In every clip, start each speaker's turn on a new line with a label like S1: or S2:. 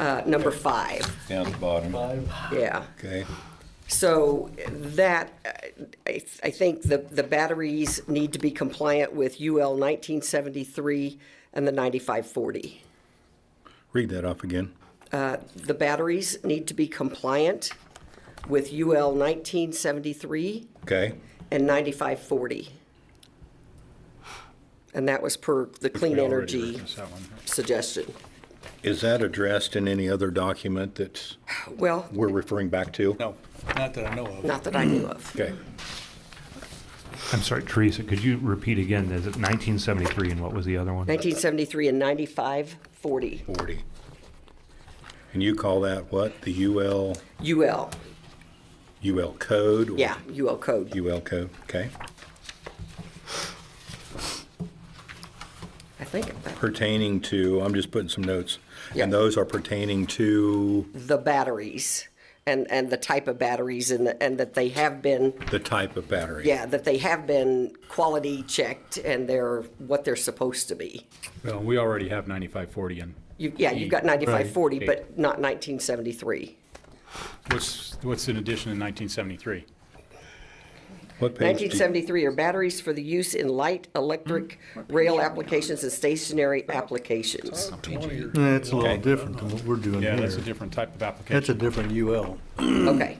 S1: uh, number five,
S2: down at the bottom.
S1: yeah.
S2: Okay,
S1: So that, uh, I, I think the, the batteries need to be compliant with UL 1973 and the 9540.
S2: read that off again.
S1: The batteries need to be compliant with UL 1973
S2: Okay,
S1: and 9540. And that was per the clean energy suggestion.
S2: is that addressed in any other document that
S1: Well,
S2: we're referring back to?
S3: No, not that I know of.
S1: not that I knew of.
S2: Okay,
S4: I'm sorry, Teresa, could you repeat again? Is it 1973 and what was the other one?
S1: 1973 and 9540,
S2: forty. And you call that what? The UL,
S1: UL,
S2: UL code? or
S1: yeah, UL code.
S2: UL code, okay.
S1: I think
S2: Pertaining to, I'm just putting some notes.
S1: Yeah.
S2: And those are pertaining to
S1: the batteries and, and the type of batteries and, and that they have been,
S2: the type of battery?
S1: yeah, that they have been quality checked and they're what they're supposed to be.
S5: Well, we already have 9540 in.
S1: You, yeah, you've got 9540, but not 1973.
S5: What's, what's in addition in 1973?
S2: What page? do you-
S1: 1973 are batteries for the use in light, electric, rail applications and stationary applications.
S6: Yeah, it's a little
S2: Okay.
S6: different than what we're doing
S5: Yeah, that's a
S6: here.
S5: different type of
S6: That's a
S5: application.
S6: different UL.
S1: Okay.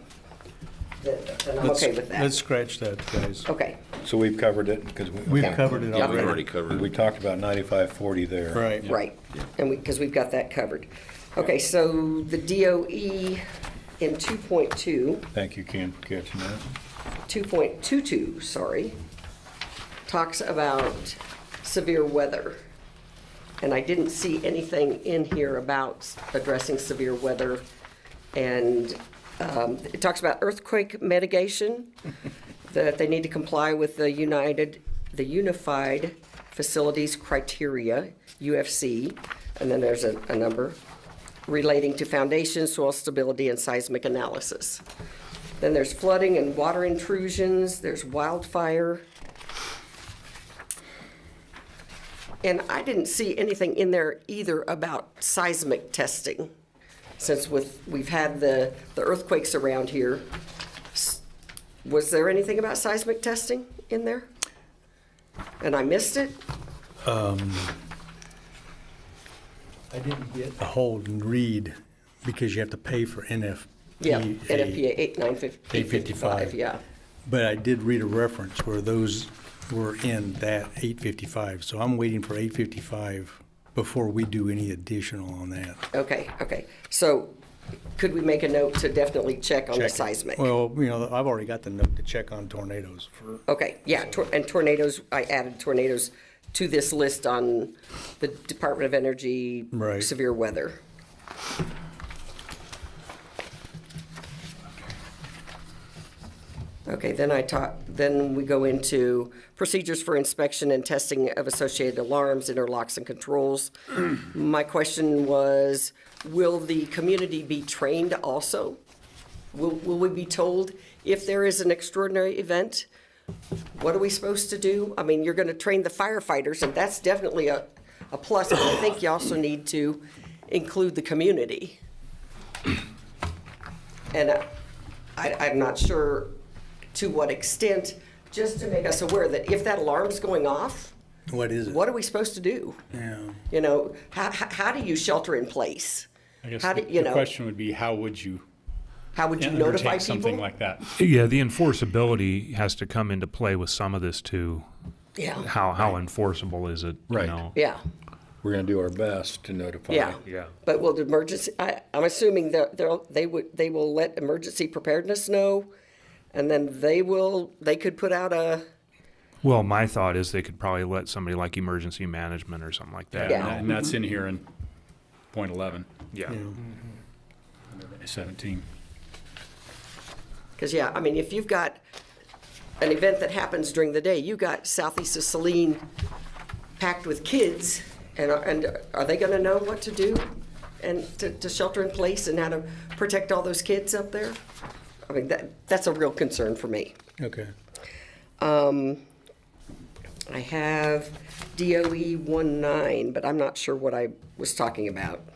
S1: Then then I'm
S3: Let's-
S1: okay with
S3: Let's
S1: that.
S3: scratch that, guys.
S1: Okay.
S2: So we've covered it because we.
S6: We've covered it
S1: Yeah, we
S6: already.
S7: already covered
S2: We
S7: it.
S2: talked about ninety-five forty there.
S3: Right.
S1: Right, and we, because we've got that covered. Okay, so the DOE in 2.2,
S2: Thank you, Ken, for catching that.
S1: 2.22, sorry, talks about severe weather. And I didn't see anything in here about addressing severe weather. And um, it talks about earthquake mitigation, that they need to comply with the United, the Unified Facilities Criteria, UFC, and then there's a, a number relating to foundation, soil stability, and seismic analysis. Then there's flooding and water intrusions, there's wildfire. And I didn't see anything in there either about seismic testing, since with, we've had the, the earthquakes around here. S- Was there anything about seismic testing in there? And I missed it?
S3: I didn't get.
S6: A hold and read, because you have to pay for NFPA.
S1: Yeah, NFPA eight nine fif-
S6: 855.
S1: 855, yeah.
S6: But I did read a reference where those were in that eight fifty-five, so I'm waiting for eight fifty-five before we do any additional on that.
S1: Okay, okay. So could we make a note to definitely check on the
S6: Check it.
S1: seismic?
S6: Well, you know, I've already got the note to check on tornadoes for,
S1: Okay, yeah, tor- and tornadoes, I added tornadoes to this list on the Department of Energy
S6: Right.
S1: severe weather. Okay, then I talk, then we go into procedures for inspection and testing of associated alarms, interlocks, and controls. My question was, will the community be trained also? Will, will we be told if there is an extraordinary event? What are we supposed to do? I mean, you're gonna train the firefighters, and that's definitely a, a plus, but I think you also need to include the community. And I, I- I'm not sure to what extent, just to make us aware that if that alarm's going off,
S6: what is it?
S1: what are we supposed to do?
S6: Yeah.
S1: You know, how, how how do you shelter in place?
S5: I guess
S1: How
S5: the
S1: do, you
S5: the
S1: know,
S5: question would be, how would you
S1: how would you notify
S5: undertake something
S1: people?
S5: like that?
S4: Yeah, the enforceability has to come into play with some of this too.
S1: Yeah,
S4: How, how enforceable is it? you
S2: Right.
S4: know?
S1: yeah,
S2: We're gonna do our best to notify.
S1: yeah.
S4: Yeah.
S1: But will the emergency, I, I'm assuming that they'll, they would, they will let emergency preparedness know, and then they will, they could put out a,
S4: Well, my thought is they could probably let somebody like emergency management or something like that.
S1: Yeah.
S5: And that's in here in point 11,
S4: Yeah.
S5: 17.
S1: Because, yeah, I mean, if you've got an event that happens during the day, you got southeast of Saline packed with kids, and are, and are they gonna know what to do? And to, to shelter in place and how to protect all those kids up there? I mean, that, that's a real concern for me.
S6: Okay.
S1: E I have DOE 19, but I'm not sure what I was talking about.